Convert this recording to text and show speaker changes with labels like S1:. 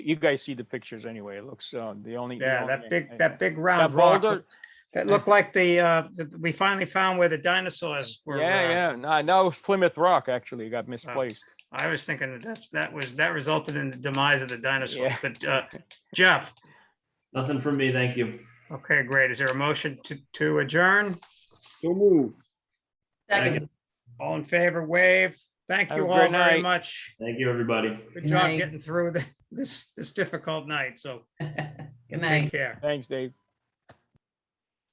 S1: you guys see the pictures anyway. It looks, uh, the only. the
S2: Yeah,
S1: only-
S2: that big, that big round
S1: That
S2: rock,
S1: boulder-
S2: that looked like the, uh, that we finally found where the dinosaurs were. uh,
S1: Yeah, yeah. No, I know it's Plymouth Rock actually got misplaced.
S2: I was thinking that that's, that was, that resulted in the demise of the dinosaurs,
S1: Yeah.
S2: but, uh, Jeff,
S3: Nothing from me, thank you.
S2: okay, great. Is there a motion to, to adjourn?
S4: So moved.
S3: Second.
S2: All in favor, wave. Thank
S1: Have
S2: you
S1: a
S2: all
S1: great
S2: very
S1: night.
S2: much.
S3: Thank you, everybody.
S2: Good
S5: Good
S2: job
S5: night.
S2: getting through the- this, this difficult night, so
S5: Good night.
S2: take care.
S1: Thanks, Dave.